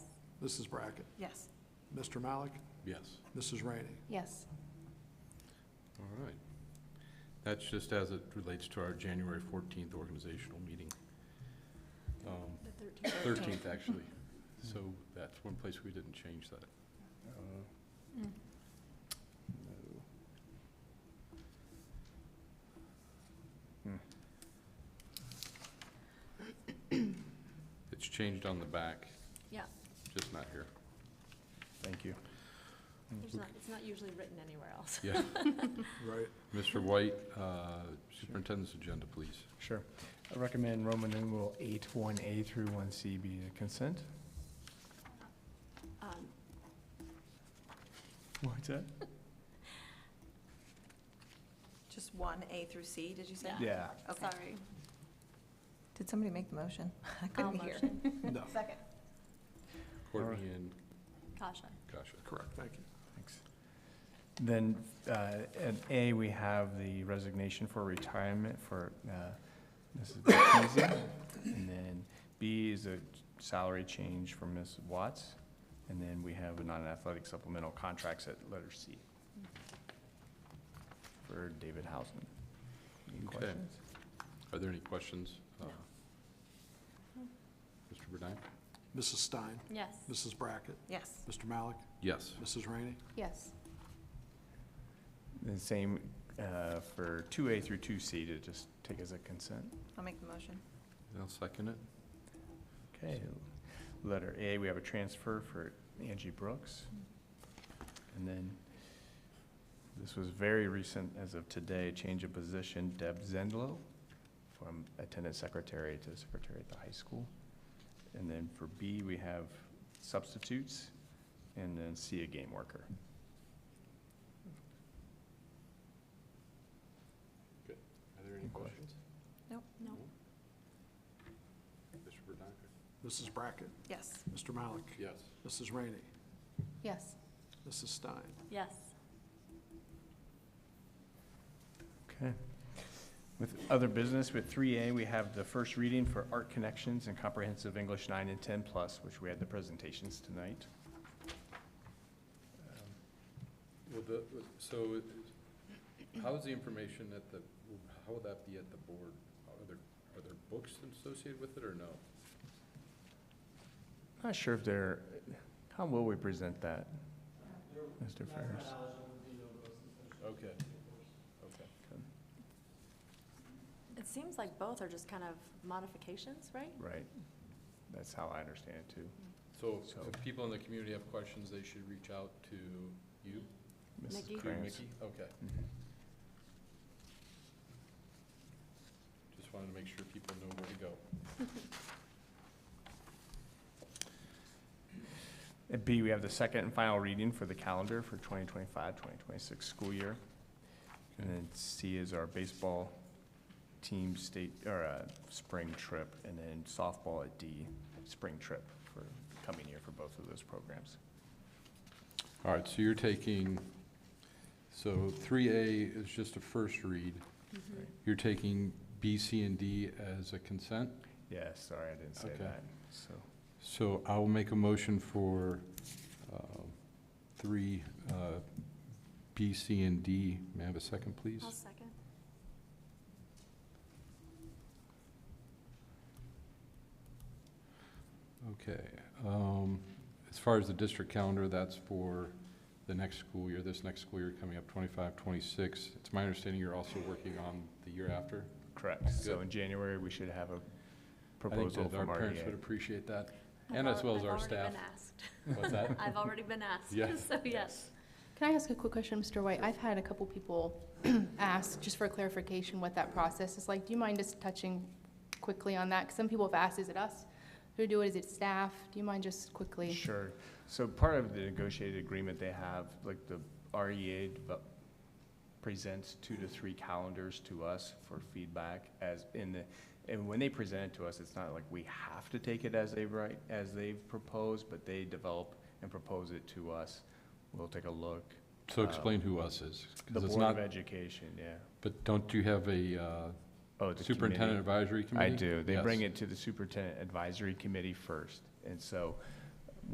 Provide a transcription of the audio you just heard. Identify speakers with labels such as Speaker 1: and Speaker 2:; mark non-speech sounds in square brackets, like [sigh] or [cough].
Speaker 1: Mrs. Brackett,
Speaker 2: Yes.
Speaker 1: Mr. Malik,
Speaker 3: Yes.
Speaker 1: Mrs. Rainey.
Speaker 2: Yes.
Speaker 3: All right. That's just as it relates to our January 14th organizational meeting. Um,
Speaker 2: The
Speaker 3: 13th, actually. So that's one place we didn't change that.
Speaker 2: Mm.
Speaker 3: It's changed on the back,
Speaker 2: Yeah,
Speaker 3: just not here.
Speaker 4: Thank you.
Speaker 2: there's not, it's not usually written anywhere else.
Speaker 3: Yeah.
Speaker 1: Right.
Speaker 3: Mr. White, uh, Superintendent's agenda, please.
Speaker 4: Sure. I recommend Roman numeral eight, one A through one C be a consent.
Speaker 2: Um,
Speaker 4: What's that?
Speaker 5: Just one, A through C, did you say?
Speaker 4: Yeah.
Speaker 5: Okay.
Speaker 2: Sorry.
Speaker 5: Did somebody make the motion? [laughs] I
Speaker 2: I'll
Speaker 5: couldn't hear. [laughs]
Speaker 2: motion.
Speaker 1: No,
Speaker 5: Second.
Speaker 3: Courtney and
Speaker 2: Kasha.
Speaker 3: Kasha.
Speaker 1: correct, thank you.
Speaker 4: Thanks. Then, uh, at A, we have the resignation for retirement for, uh, Mrs. Martinez. And then B is a salary change for Ms. Watts. And then we have a non-athletic supplemental contracts at letter C for David Hausman. Any
Speaker 3: Okay.
Speaker 4: questions?
Speaker 3: Are there any questions? uh,
Speaker 2: No.
Speaker 3: Mr. Burdine?
Speaker 1: Mrs. Stein,
Speaker 2: Yes.
Speaker 1: Mrs. Brackett,
Speaker 5: Yes.
Speaker 1: Mr. Malik,
Speaker 3: Yes.
Speaker 1: Mrs. Rainey.
Speaker 2: Yes.
Speaker 4: The same uh, for 2A through 2C to just take as a consent.
Speaker 5: I'll make the motion.
Speaker 3: I'll second it.
Speaker 4: Okay. Letter A, we have a transfer for Angie Brooks. And then, this was very recent, as of today, change of position, Deb Zendlo from attendant secretary to secretary at the high school. And then for B, we have substitutes, and then C, a game worker.
Speaker 3: Are there
Speaker 4: any questions?
Speaker 5: Nope.
Speaker 2: No.
Speaker 3: Mr. Burdine?
Speaker 1: Mrs. Brackett,
Speaker 5: Yes.
Speaker 1: Mr. Malik,
Speaker 3: Yes.
Speaker 1: Mrs. Rainey,
Speaker 2: Yes.
Speaker 1: Mrs. Stein.
Speaker 2: Yes.
Speaker 4: Okay. With other business, with three A, we have the first reading for Art Connections and Comprehensive English nine and ten plus, which we had the presentations tonight.
Speaker 3: Um, Well, the, so it- how is the information at the, how would that be at the board? Are there, are there books associated with it or no?
Speaker 4: Not sure if they're, how will we present that, Mr. Ferris?
Speaker 3: Okay. Okay.
Speaker 2: It seems like both are just kind of modifications, right?
Speaker 4: Right. That's how I understand it too.
Speaker 3: So
Speaker 4: So-
Speaker 3: if people in the community have questions, they should reach out to you?
Speaker 4: Mrs.
Speaker 2: Mickey?
Speaker 3: To
Speaker 4: Krantz.
Speaker 3: Mickey? Okay.
Speaker 4: Mhm.
Speaker 3: Just wanted to make sure people know where to go.
Speaker 4: At B, we have the second and final reading for the calendar for 2025-2026 school year. And then C is our baseball team state, or, uh, spring trip, and then softball at D, spring trip for coming year for both of those programs.
Speaker 3: All right, so you're taking, so three A is just a first read.
Speaker 2: Mm-hmm.
Speaker 4: Right.
Speaker 3: You're taking B, C, and D as a consent?
Speaker 4: Yeah, sorry, I didn't say
Speaker 3: Okay.
Speaker 4: that, so.
Speaker 3: So I will make a motion for um, three, uh, B, C, and D. May I have a second, please?
Speaker 2: I'll second.
Speaker 3: Okay. um, As far as the district calendar, that's for the next school year, this next school year coming up, 25, 26. It's my understanding you're also working on the year after?
Speaker 4: Correct, so
Speaker 3: Good.
Speaker 4: in January, we should have a
Speaker 3: I think
Speaker 4: proposal
Speaker 3: that
Speaker 4: from E
Speaker 3: Our parents would
Speaker 4: RDA.
Speaker 3: appreciate that.
Speaker 2: I've
Speaker 3: And as
Speaker 2: al-
Speaker 3: well as our
Speaker 2: I've already
Speaker 3: staff.
Speaker 2: been asked.
Speaker 3: What's that?
Speaker 2: [laughs] I've already been asked.
Speaker 3: Yeah.
Speaker 2: [laughs] So, yes.
Speaker 6: Can I ask a quick question, Mr. White? I've had a couple people [clears throat] ask, just for clarification, what that process is like. Do you mind just touching quickly on that? 'Cause some people have asked, is it us who do it? Is it staff? Do you mind just quickly?
Speaker 4: Sure, so part of the negotiated agreement they have, like the REA develop- presents two to three calendars to us for feedback as in the, and when they present it to us, it's not like we have to take it as they write, as they've proposed, but they develop and propose it to us. We'll take a look.
Speaker 3: So explain who us is. 'cause
Speaker 4: Um, The
Speaker 3: it's
Speaker 4: Board
Speaker 3: not-
Speaker 4: of Education, yeah.
Speaker 3: But don't you have a uh,
Speaker 4: Oh, the committee.
Speaker 3: superintendent advisory committee?
Speaker 4: I do. They bring
Speaker 3: Yes.
Speaker 4: it to the superintendent advisory committee first. And so